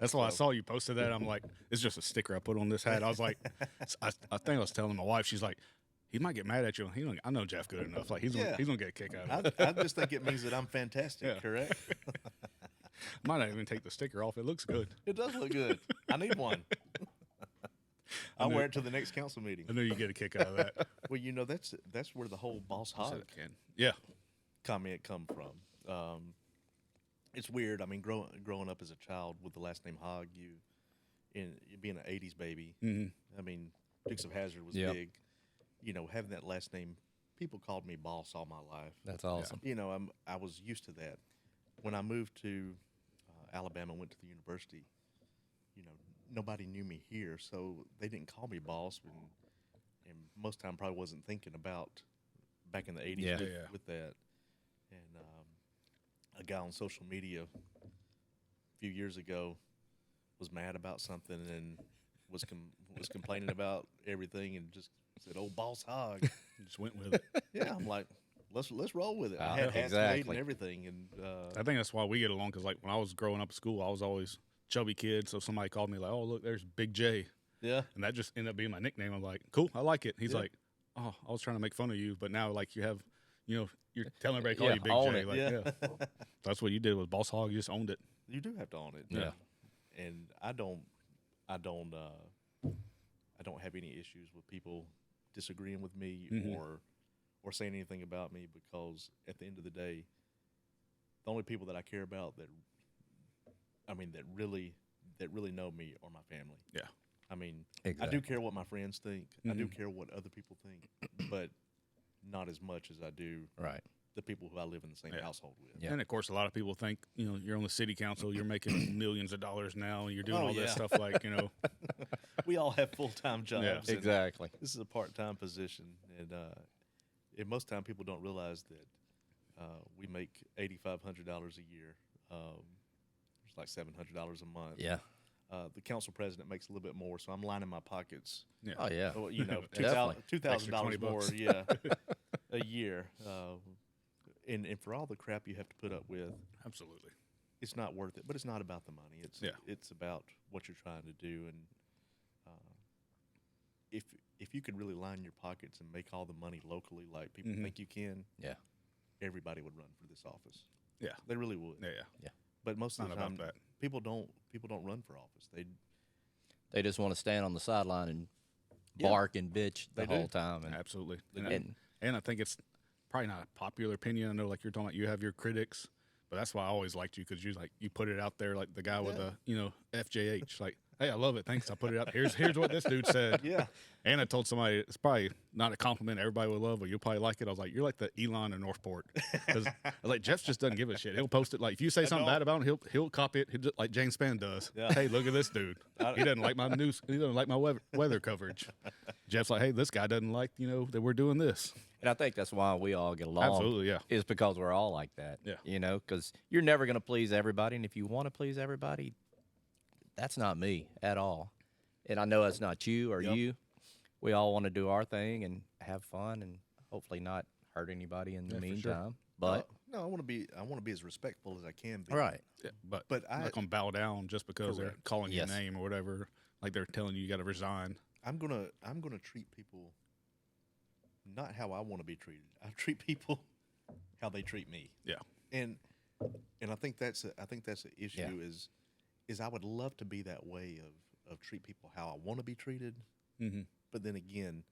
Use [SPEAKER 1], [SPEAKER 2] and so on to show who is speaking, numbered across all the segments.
[SPEAKER 1] That's why I saw you posted that. I'm like, it's just a sticker I put on this hat. I was like, I, I think I was telling my wife, she's like, he might get mad at you. He don't, I know Jeff good enough. Like he's
[SPEAKER 2] Yeah.
[SPEAKER 1] gonna, he's gonna get a kick out of
[SPEAKER 2] I,
[SPEAKER 1] it.
[SPEAKER 2] I just think it means that I'm fantastic,
[SPEAKER 1] Yeah.
[SPEAKER 2] correct?
[SPEAKER 1] might not even take the sticker off. It looks good.
[SPEAKER 2] It does look good. I need one. I'll
[SPEAKER 1] knew-
[SPEAKER 2] wear it to the next council meeting.
[SPEAKER 1] I know you get a kick out of that.
[SPEAKER 2] Well, you know that's that's where the whole boss
[SPEAKER 1] I said
[SPEAKER 2] hog
[SPEAKER 1] I can. Yeah,
[SPEAKER 2] comment come from. Um, it's weird. I mean, growing growing up as a child with the last name Hogg, you in being an '80s baby.
[SPEAKER 1] Mhm.
[SPEAKER 2] I mean, Dukes of Hazard was
[SPEAKER 3] Yeah.
[SPEAKER 2] big. You know, having that last name, people called me boss all my life.
[SPEAKER 3] That's awesome.
[SPEAKER 2] You know, I'm I was used to that. When I moved to uh, Alabama, went to the university. You know, nobody knew me here, so they didn't call me boss, and, and most time probably wasn't thinking about back in the '80s
[SPEAKER 3] Yeah.
[SPEAKER 2] with,
[SPEAKER 1] Yeah.
[SPEAKER 2] with that. And um, a guy on social media a few years ago was mad about something and was com- was complaining about everything and just said, "Oh, boss hog."
[SPEAKER 1] just went with it.
[SPEAKER 2] Yeah, I'm like, let's let's roll with it.
[SPEAKER 3] Ah,
[SPEAKER 2] I had hats made
[SPEAKER 3] exactly.
[SPEAKER 2] and everything, and uh,
[SPEAKER 1] I think that's why we get along. Cause like when I was growing up at school, I was always chubby kid. So somebody called me like, oh look, there's Big J,
[SPEAKER 2] yeah,
[SPEAKER 1] and that just ended up being my nickname. I'm like, cool, I like it. He's
[SPEAKER 2] Yeah.
[SPEAKER 1] like, oh, I was trying to make fun of you, but now like you have, you know, you're telling everybody to call
[SPEAKER 3] Yeah,
[SPEAKER 1] you Big
[SPEAKER 3] own
[SPEAKER 1] J.
[SPEAKER 3] it.
[SPEAKER 1] Like,
[SPEAKER 2] yeah,
[SPEAKER 1] yeah. That's what you did with Boss Hog. You just owned it.
[SPEAKER 2] you do have to own it.
[SPEAKER 3] Yeah.
[SPEAKER 2] and I don't, I don't, uh, I don't have any issues with people disagreeing with me
[SPEAKER 1] Mhm.
[SPEAKER 2] or or saying anything about me because at the end of the day, the only people that I care about that, I mean, that really that really know me are my family.
[SPEAKER 1] Yeah.
[SPEAKER 2] I mean, I
[SPEAKER 3] Exactly. Mm-hmm.
[SPEAKER 2] do care what my friends think. I do care what other people think, but not as much as I do
[SPEAKER 3] Right.
[SPEAKER 2] the people who I live in the same
[SPEAKER 1] Yeah.
[SPEAKER 2] household with.
[SPEAKER 3] Yeah.
[SPEAKER 1] And of course, a lot of people think you know you're on the city council, you're making millions of dollars now, and you're doing
[SPEAKER 2] Oh,
[SPEAKER 1] all
[SPEAKER 2] yeah.
[SPEAKER 1] this stuff like you know.
[SPEAKER 2] We all have full time jobs. and
[SPEAKER 3] Exactly.
[SPEAKER 2] This is a part time position, and uh, and most time people don't realize that uh, we make eighty five hundred dollars a year. Um, it's like seven hundred dollars a month.
[SPEAKER 3] Yeah.
[SPEAKER 2] Uh, the council president makes a little bit more, so I'm lining my pockets.
[SPEAKER 1] Yeah.
[SPEAKER 3] Oh yeah.
[SPEAKER 2] Well, you know, two
[SPEAKER 3] Definitely.
[SPEAKER 2] thousand two thousand dollars
[SPEAKER 1] Extra 20
[SPEAKER 2] more,
[SPEAKER 1] bucks.
[SPEAKER 2] yeah, a year. Uh, and and for all the crap you have to put up with,
[SPEAKER 1] Absolutely.
[SPEAKER 2] it's not worth it. But it's not about the money. It's
[SPEAKER 1] Yeah.
[SPEAKER 2] it's about what you're trying to do. And uh, if if you could really line your pockets and make all the money locally, like people
[SPEAKER 1] Mhm.
[SPEAKER 2] think you can,
[SPEAKER 3] Yeah.
[SPEAKER 2] everybody would run for this office.
[SPEAKER 1] Yeah.
[SPEAKER 2] they really would.
[SPEAKER 1] Yeah.
[SPEAKER 2] But most of
[SPEAKER 1] Not
[SPEAKER 2] the
[SPEAKER 1] about
[SPEAKER 2] time,
[SPEAKER 1] that.
[SPEAKER 2] people don't people don't run for office. They
[SPEAKER 3] They just want to stand on the sideline and
[SPEAKER 2] Yeah.
[SPEAKER 3] bark and bitch the
[SPEAKER 2] They do.
[SPEAKER 3] whole time. And
[SPEAKER 1] Absolutely.
[SPEAKER 2] They
[SPEAKER 1] And,
[SPEAKER 3] do.
[SPEAKER 1] I- and I think it's probably not a popular opinion. I know like you're talking about you have your critics, but that's why I always liked you because you like you put it out there like the guy with
[SPEAKER 2] Yeah.
[SPEAKER 1] the you know FJH like. Hey, I love it. Thanks. I put it out. Here's here's what this dude said.
[SPEAKER 2] yeah
[SPEAKER 1] And I told somebody it's probably not a compliment everybody would love, but you'll probably like it. I was like, you're like the Elon of Northport. 'Cause I was like, Jeff just doesn't give a shit. He'll post it. Like if you say something bad about him, he'll he'll copy it. He'll just, like James Spann does.
[SPEAKER 2] Yeah.
[SPEAKER 1] Hey, look at this dude. He doesn't like my news. He doesn't like my weather, weather coverage. Jeff's like, hey, this guy doesn't like you know that we're doing this.
[SPEAKER 3] And I think that's why we all get along.
[SPEAKER 1] Absolutely, yeah.
[SPEAKER 3] Is because we're all like that.
[SPEAKER 1] Yeah.
[SPEAKER 3] You know, because you're never going to please everybody. And if you want to please everybody, that's not me at all. And I know that's not you or
[SPEAKER 2] Yep.
[SPEAKER 3] you. We all want to do our thing and have fun and hopefully not hurt anybody in the
[SPEAKER 1] Yeah, for
[SPEAKER 3] meantime.
[SPEAKER 1] sure.
[SPEAKER 3] But,
[SPEAKER 2] no, no, I want to be I want to be as respectful as I can be.
[SPEAKER 3] all right.
[SPEAKER 1] Yeah, but
[SPEAKER 2] But
[SPEAKER 1] I'm
[SPEAKER 2] I-
[SPEAKER 1] not gonna bow down just because they're
[SPEAKER 2] Correct.
[SPEAKER 1] calling
[SPEAKER 3] Yes.
[SPEAKER 1] your name or whatever. Like they're telling you you got to resign.
[SPEAKER 2] I'm gonna I'm gonna treat people not how I want to be treated. I treat people how they treat me,
[SPEAKER 1] Yeah,
[SPEAKER 2] and and I think that's a, I think that's the issue is is I would love to be that way of of treat people how I want to be treated,
[SPEAKER 1] mm-hmm.
[SPEAKER 2] but then again,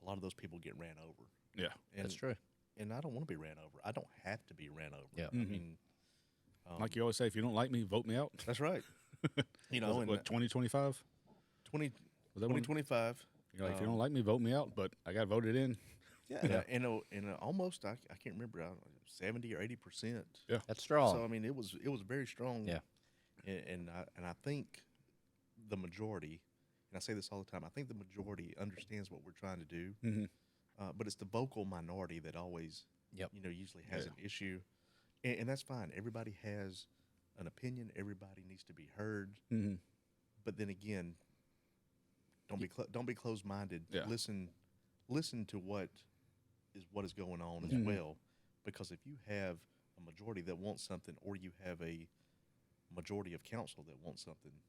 [SPEAKER 2] a lot of those people get ran over.
[SPEAKER 1] yeah.
[SPEAKER 2] And,
[SPEAKER 3] that's true.
[SPEAKER 2] And I don't want to be ran over. I don't have to be ran over.
[SPEAKER 3] Yeah.
[SPEAKER 2] I
[SPEAKER 1] Mhm.
[SPEAKER 2] mean, um,
[SPEAKER 1] like you always say, if you don't like me, vote me out.
[SPEAKER 2] that's right. you know,
[SPEAKER 1] Was it,
[SPEAKER 2] in
[SPEAKER 1] what twenty twenty five?
[SPEAKER 2] 20,
[SPEAKER 1] Was that when-
[SPEAKER 2] 2025.
[SPEAKER 1] You're like, if you
[SPEAKER 2] Um,
[SPEAKER 1] don't like me, vote me out. But I got voted in.
[SPEAKER 2] Yeah, and, uh, and, uh, and uh, almost I, I can't remember uh, seventy or eighty percent.
[SPEAKER 3] That's strong.
[SPEAKER 2] So I mean, it was it was very strong.
[SPEAKER 3] Yeah.
[SPEAKER 2] and and I, and I think the majority, and I say this all the time, I think the majority understands what we're trying to do,
[SPEAKER 1] Mhm.
[SPEAKER 2] uh, but it's the vocal minority that always,
[SPEAKER 3] Yep.
[SPEAKER 2] you know, usually has
[SPEAKER 1] Yeah.
[SPEAKER 2] an issue, and, and that's fine. Everybody has an opinion. Everybody needs to be heard.
[SPEAKER 1] Mm-hmm.
[SPEAKER 2] But then again, don't be cl- don't be closed minded.
[SPEAKER 1] Yeah.
[SPEAKER 2] Listen, listen to what is what is going on as
[SPEAKER 1] Mhm.
[SPEAKER 2] well, because if you have a majority that wants something, or you have a majority of council that wants something